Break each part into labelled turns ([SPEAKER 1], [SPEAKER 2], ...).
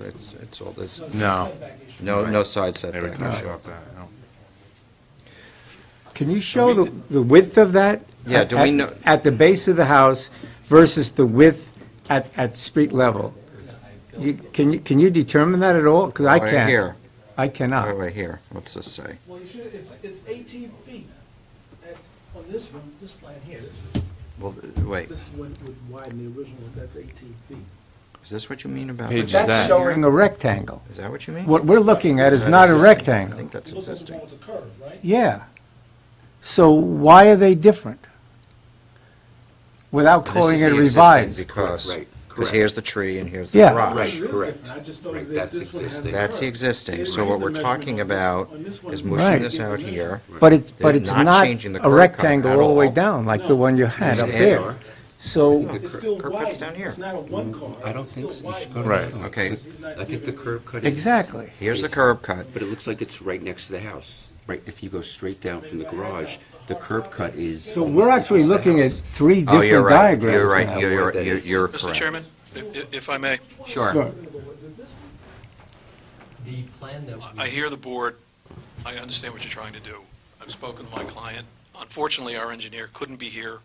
[SPEAKER 1] It's, it's all, there's
[SPEAKER 2] No.
[SPEAKER 1] no, no side setback
[SPEAKER 2] Every time I
[SPEAKER 1] issue.
[SPEAKER 2] shot that, no.
[SPEAKER 3] Can you show the the width of that?
[SPEAKER 1] Yeah, do we
[SPEAKER 3] At- at-
[SPEAKER 1] know-
[SPEAKER 3] At the base of the house versus the width at, at street level? You- Can you, can you determine that at all? Because I
[SPEAKER 1] Right
[SPEAKER 3] can't. Ah.
[SPEAKER 1] here.
[SPEAKER 3] I
[SPEAKER 1] Right
[SPEAKER 3] cannot.
[SPEAKER 1] right here, what's this say?
[SPEAKER 4] Well, you should, it's, it's eighteen feet at, on this one, this plan here, this is,
[SPEAKER 1] Well, wait,
[SPEAKER 4] this is what would widen the original, one. that's eighteen feet.
[SPEAKER 1] is this what you mean about?
[SPEAKER 2] Page is
[SPEAKER 3] That's
[SPEAKER 2] that?
[SPEAKER 3] showing a rectangle.
[SPEAKER 1] Is that what you mean?
[SPEAKER 3] What we're looking at is
[SPEAKER 1] That
[SPEAKER 3] not a
[SPEAKER 1] existing? I
[SPEAKER 3] rectangle.
[SPEAKER 1] think that's
[SPEAKER 4] You're looking
[SPEAKER 1] existing.
[SPEAKER 4] toward the curve, right?
[SPEAKER 3] Yeah. So why are they different? Without
[SPEAKER 1] This
[SPEAKER 3] calling
[SPEAKER 1] is
[SPEAKER 3] it
[SPEAKER 1] the existing
[SPEAKER 3] revised?
[SPEAKER 1] Because,
[SPEAKER 5] Right,
[SPEAKER 1] because
[SPEAKER 5] correct.
[SPEAKER 1] here's the tree and here's the
[SPEAKER 3] Yeah.
[SPEAKER 1] garage.
[SPEAKER 5] Right,
[SPEAKER 4] It is
[SPEAKER 5] correct.
[SPEAKER 4] different. I just know
[SPEAKER 5] Right,
[SPEAKER 4] that
[SPEAKER 5] that's
[SPEAKER 4] this one has a
[SPEAKER 5] existing.
[SPEAKER 1] That's the
[SPEAKER 4] curve.
[SPEAKER 1] existing,
[SPEAKER 4] They
[SPEAKER 1] so what
[SPEAKER 4] didn't
[SPEAKER 1] we're
[SPEAKER 4] give the
[SPEAKER 1] talking
[SPEAKER 4] measurement
[SPEAKER 1] about
[SPEAKER 4] on this- on this one.
[SPEAKER 1] is
[SPEAKER 4] They
[SPEAKER 3] Right.
[SPEAKER 1] moving
[SPEAKER 4] didn't
[SPEAKER 1] this
[SPEAKER 4] give the
[SPEAKER 1] out
[SPEAKER 4] measurement.
[SPEAKER 1] here.
[SPEAKER 3] But it's,
[SPEAKER 1] They're
[SPEAKER 3] but it's
[SPEAKER 1] not
[SPEAKER 3] not
[SPEAKER 1] changing the
[SPEAKER 3] a
[SPEAKER 1] curb cut
[SPEAKER 3] rectangle
[SPEAKER 1] at
[SPEAKER 3] all the way
[SPEAKER 1] all.
[SPEAKER 3] down like the one you had up
[SPEAKER 1] It's
[SPEAKER 3] there.
[SPEAKER 1] an
[SPEAKER 3] So,
[SPEAKER 4] It's still
[SPEAKER 1] Curb cut's
[SPEAKER 4] wide,
[SPEAKER 1] down here.
[SPEAKER 4] it's not a one car.
[SPEAKER 5] Mm, I don't think so. You should go to
[SPEAKER 2] Right.
[SPEAKER 5] the house.
[SPEAKER 1] Okay.
[SPEAKER 5] Because I think the curb cut is.
[SPEAKER 3] exactly.
[SPEAKER 1] Here's the curb cut.
[SPEAKER 5] But it looks like it's right next to the house. Right, if you go straight down from the garage, the curb cut is.
[SPEAKER 3] So
[SPEAKER 5] almost
[SPEAKER 3] we're
[SPEAKER 5] against
[SPEAKER 3] actually
[SPEAKER 5] the
[SPEAKER 3] looking at
[SPEAKER 5] house.
[SPEAKER 3] three
[SPEAKER 1] Oh, you're
[SPEAKER 3] different
[SPEAKER 1] right,
[SPEAKER 3] diagrams.
[SPEAKER 1] you're right,
[SPEAKER 3] now.
[SPEAKER 1] you're, you're-
[SPEAKER 5] That
[SPEAKER 1] you're,
[SPEAKER 5] is-
[SPEAKER 1] you're
[SPEAKER 6] Mr.
[SPEAKER 1] correct.
[SPEAKER 6] Chairman, if, if I may,
[SPEAKER 1] Sure.
[SPEAKER 4] Was it this one?
[SPEAKER 7] The plan that
[SPEAKER 6] I
[SPEAKER 7] we,
[SPEAKER 6] hear the board, I understand what you're trying to do. I've spoken to my client. Unfortunately, our engineer couldn't be here.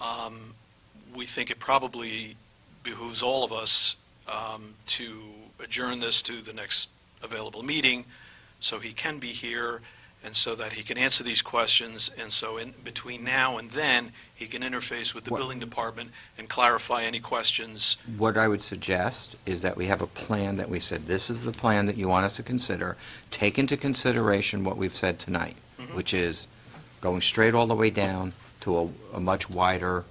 [SPEAKER 6] Um, We think it probably behooves all of us um, to adjourn this to the next available meeting, so he can be here, and so that he can answer these questions, and so in between now and then, he can interface with the
[SPEAKER 8] What-
[SPEAKER 6] building department and clarify any questions.
[SPEAKER 8] What I would suggest is that we have a plan that we said, this is the plan that you want us to consider. Take into consideration what we've said tonight, which is going straight all the way down to a, a much wider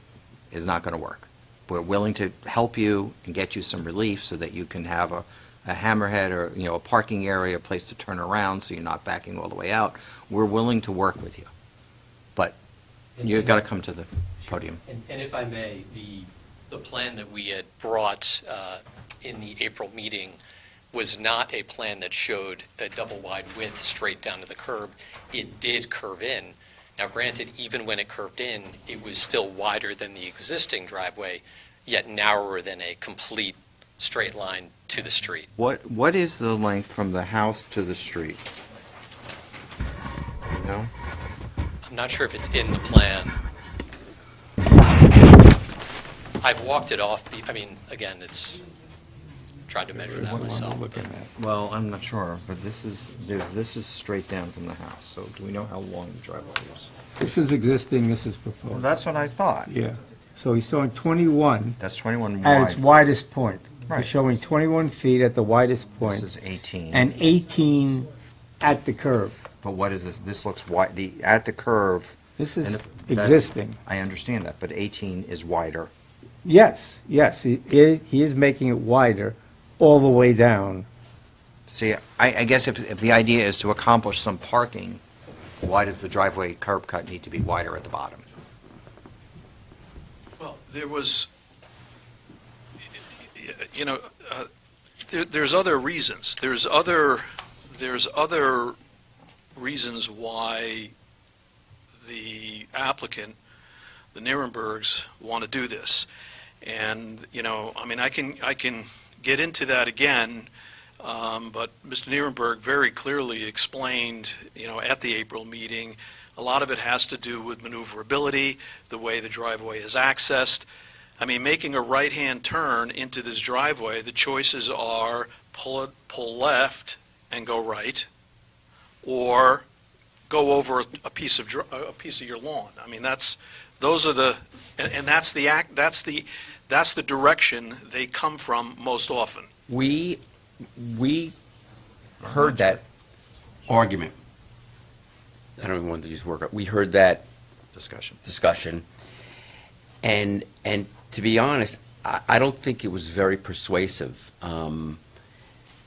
[SPEAKER 8] is not going to work. We're willing to help you and get you some relief so that you can have a, a hammerhead or, you know, a parking area, a place to turn around so you're not backing all the way out. We're willing to work with you. But you've got to come to the podium.
[SPEAKER 7] and and if I may, the, the plan that we had brought uh, in the April meeting was not a plan that showed a double wide width straight down to the curb. It did curve in. Now granted, even when it curved in, it was still wider than the existing driveway, yet narrower than a complete straight line to the street.
[SPEAKER 8] What, what is the length from the house to the street? You know?
[SPEAKER 7] I'm not sure if it's in the plan. I've walked it off, be- I mean, again, it's, tried to measure that myself. but-
[SPEAKER 8] Well, I'm not sure, but this is, there's, this is straight down from the house, so do we know how long the driveway is?
[SPEAKER 3] This is existing, this is
[SPEAKER 8] Well,
[SPEAKER 3] proposed.
[SPEAKER 8] that's what I thought.
[SPEAKER 3] Yeah. So he's showing 21
[SPEAKER 8] That's 21
[SPEAKER 3] at its
[SPEAKER 8] wide.
[SPEAKER 3] widest point.
[SPEAKER 8] Right.
[SPEAKER 3] He's showing 21 feet at the widest
[SPEAKER 8] This
[SPEAKER 3] point
[SPEAKER 8] is 18.
[SPEAKER 3] and 18 at the curve.
[SPEAKER 8] But what is this? This looks wide, the, at the curve.
[SPEAKER 3] This
[SPEAKER 8] and
[SPEAKER 3] is
[SPEAKER 8] if- that's-
[SPEAKER 3] existing.
[SPEAKER 8] I understand that, but 18 is wider.
[SPEAKER 3] Yes, yes, he, he he is making it wider all the way down.
[SPEAKER 8] See, I, I guess if, if the idea is to accomplish some parking, why does the driveway curb cut need to be wider at the bottom?
[SPEAKER 6] Well, there was, you know, uh, there- there's other reasons. There's other, there's other reasons why the applicant, the Nirenbergs, want to do this. And, you know, I mean, I can, I can get into that again, um, but Mr. Nirenberg very clearly explained, you know, at the April meeting, a lot of it has to do with maneuverability, the way the driveway is accessed. I mean, making a right-hand turn into this driveway, the choices are pull, pull left and go right, or go over a piece of, dr- a piece of your lawn. I mean, that's, those are the, and, and that's the act, that's the, that's the direction they come from most often.
[SPEAKER 5] We, we heard that argument. I don't even want to use the word, we heard that. Discussion. Discussion. And, and to be honest, I, I don't think it was very persuasive. Um,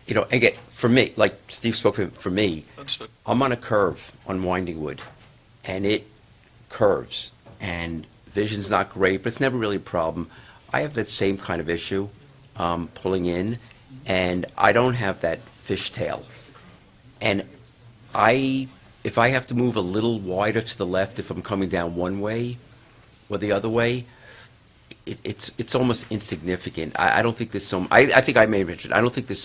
[SPEAKER 5] You know, again, for me, like Steve spoke for, for me,
[SPEAKER 6] Understood.
[SPEAKER 5] I'm on a curve on Winding Wood, and it curves, and vision's not great, but it's never really a problem. I have that same kind of issue um, pulling in, and I don't have that fishtail. And I, if I have to move a little wider to the left if I'm coming down one way or the other way, it, it's it's almost insignificant. I, I don't think there's so. I, I think I may have mentioned. I don't think there's so.